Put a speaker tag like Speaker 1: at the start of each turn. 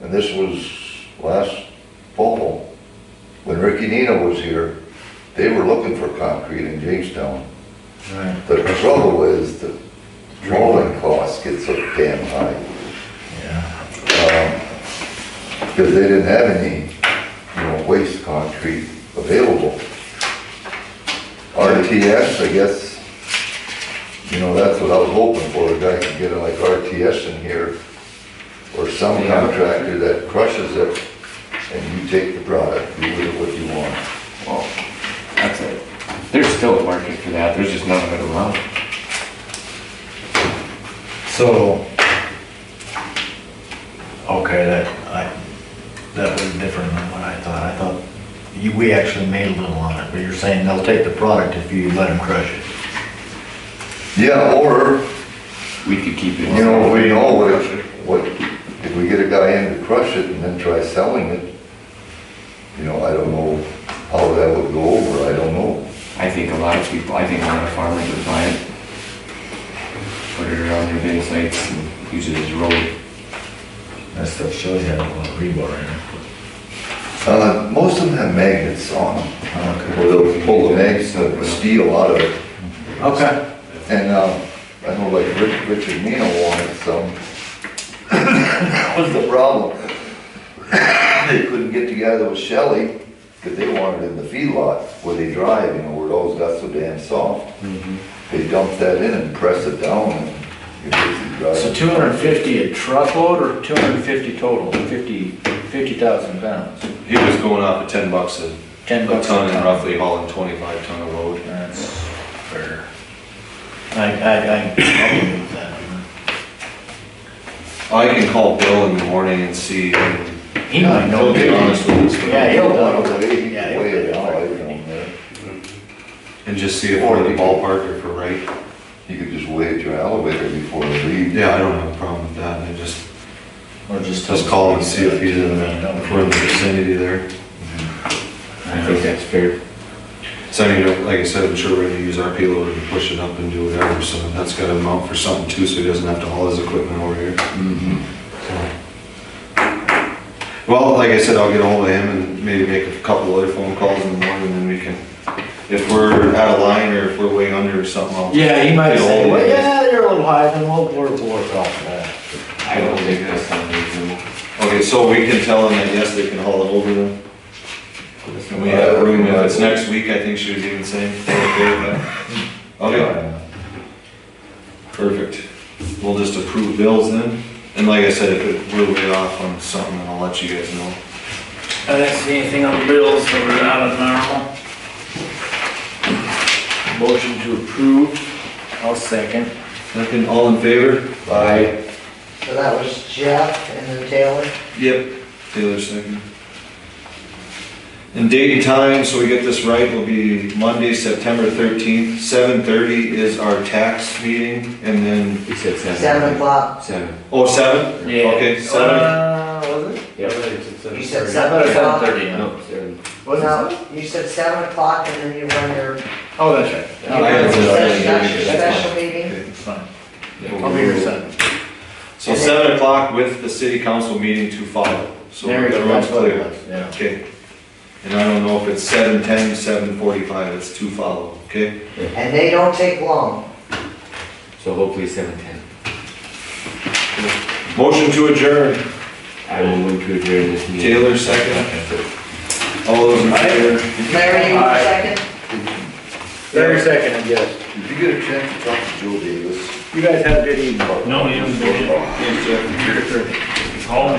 Speaker 1: and this was last fall, when Ricky Nina was here, they were looking for concrete in Jamestown.
Speaker 2: Right.
Speaker 1: The trouble is the drawing cost gets so damn high,
Speaker 2: Yeah.
Speaker 1: because Um, they didn't have any, you know, waste concrete available. RTS, I guess, you know, that's what I was hoping for, a guy could get like RTS in here, or some
Speaker 2: Yeah.
Speaker 1: contractor that crushes it, and you take the product, do with it what you want.
Speaker 3: Well, that's it. There's still a market for that, there's just none of it around.
Speaker 2: So. Okay, that, I, that was different than what I thought. I thought you, we actually made a little on it, but you're saying they'll take the product if you let them crush it.
Speaker 1: Yeah, or
Speaker 3: We could keep it.
Speaker 1: You know, we know what, it- what, if we get a guy in to crush it and then try selling it, you know, I don't know how that would go over, I don't know.
Speaker 3: I think a lot of people, I think a lot of farmers would buy it. Put it around their bin sites and use it as road.
Speaker 2: That stuff shows you have a lot of rebar in it.
Speaker 1: Uh, most of them have magnets on them,
Speaker 2: Okay.
Speaker 1: where Oh, they'll pull the magnets, the steel out of it.
Speaker 2: Okay.
Speaker 1: And, um, I know like Rich- Richard Nino wanted some. That was the problem. They couldn't get together with Shelley, because they wanted it in the feedlot where they drive, you know, where it always got so damn soft.
Speaker 2: Mm-hmm.
Speaker 1: They dump that in and press it down and you basically
Speaker 4: So
Speaker 1: drive.
Speaker 4: two hundred and fifty a truckload or two hundred and fifty total, fifty, fifty thousand pounds,
Speaker 5: He was going off at ten bucks a
Speaker 4: ten
Speaker 5: a
Speaker 4: bucks.
Speaker 5: ton and roughly hauling twenty-five ton of load.
Speaker 4: That's fair.
Speaker 2: I, I, I, I'll give you that.
Speaker 5: I can call Bill in the morning and see, and
Speaker 2: He might know.
Speaker 5: he'll be honest with us.
Speaker 2: Yeah, he'll know.
Speaker 1: Way,
Speaker 2: Yeah, he'll-
Speaker 1: way it out, I don't know.
Speaker 5: And just see if we're in the ballpark or if we're right.
Speaker 1: You could just wait at your elevator before you leave.
Speaker 5: Yeah, I don't have a problem with that, I just,
Speaker 4: Or just.
Speaker 5: just call and see if he's in the, if we're in the vicinity there.
Speaker 3: I think that's fair.
Speaker 5: So, you know, like I said, I'm sure we're gonna use our payload and push it up and do whatever, so that's gotta mount for something too, so he doesn't have to haul his equipment over here. So. Well, like I said, I'll get ahold of him and maybe make a couple other phone calls in the morning, and then we can, if we're out of line or if we're way under or something, I'll.
Speaker 4: Yeah, he might
Speaker 5: Get
Speaker 4: say,
Speaker 5: ahold of
Speaker 4: well,
Speaker 5: him.
Speaker 4: yeah, you're a little high, then we'll, we'll work off that.
Speaker 3: I don't think that's unreasonable.
Speaker 5: Okay, so we can tell them that yes, they can haul it over then? And we have room, if it's next week, I think she was even saying, they're okay with that. Okay, perfect. We'll just approve bills then, and like I said, if it- we're way off on something, then I'll let you guys know.
Speaker 6: I didn't see anything on the bills, so we're out of normal.
Speaker 4: Motion to approve, I'll second.
Speaker 5: Second, all in favor? Aye.
Speaker 7: So that was Jeff and then Taylor.
Speaker 5: Yep, Taylor second. And date and time, so we get this right, will be Monday, September thirteenth, seven thirty is our tax meeting, and then,
Speaker 3: You said seven.
Speaker 7: Seven o'clock.
Speaker 3: Seven.
Speaker 5: oh, seven? Okay, seven,
Speaker 4: Uh, was it?
Speaker 7: You said
Speaker 4: I thought it
Speaker 7: seven
Speaker 4: was seven
Speaker 7: o'clock.
Speaker 4: thirty, no.
Speaker 3: No, seven.
Speaker 4: Was it seven?
Speaker 7: No, you said seven o'clock and then you run your
Speaker 4: Oh, that's right.
Speaker 5: I had
Speaker 7: your
Speaker 5: said seven
Speaker 7: special
Speaker 5: thirty, that's
Speaker 7: special meeting.
Speaker 4: Fine. I'll be here seven.
Speaker 5: so seven o'clock with the city council meeting to follow, so
Speaker 4: There you go,
Speaker 5: everyone's
Speaker 4: that's what it
Speaker 5: clear.
Speaker 4: was, yeah.
Speaker 5: Okay, and I don't know if it's seven ten, seven forty-five, it's to follow, okay?
Speaker 7: And they don't take long.
Speaker 3: So hopefully seven ten.
Speaker 5: Motion to adjourn,
Speaker 3: I will move to adjourn this meeting.
Speaker 5: Taylor second. All those in favor?
Speaker 7: Larry, you want a second?
Speaker 4: Very second, I guess.
Speaker 1: Did you get a chance to talk to Joe Davis?
Speaker 4: You guys have a good evening.
Speaker 6: No, you haven't been in.
Speaker 5: Yes, sir.
Speaker 6: It's all in.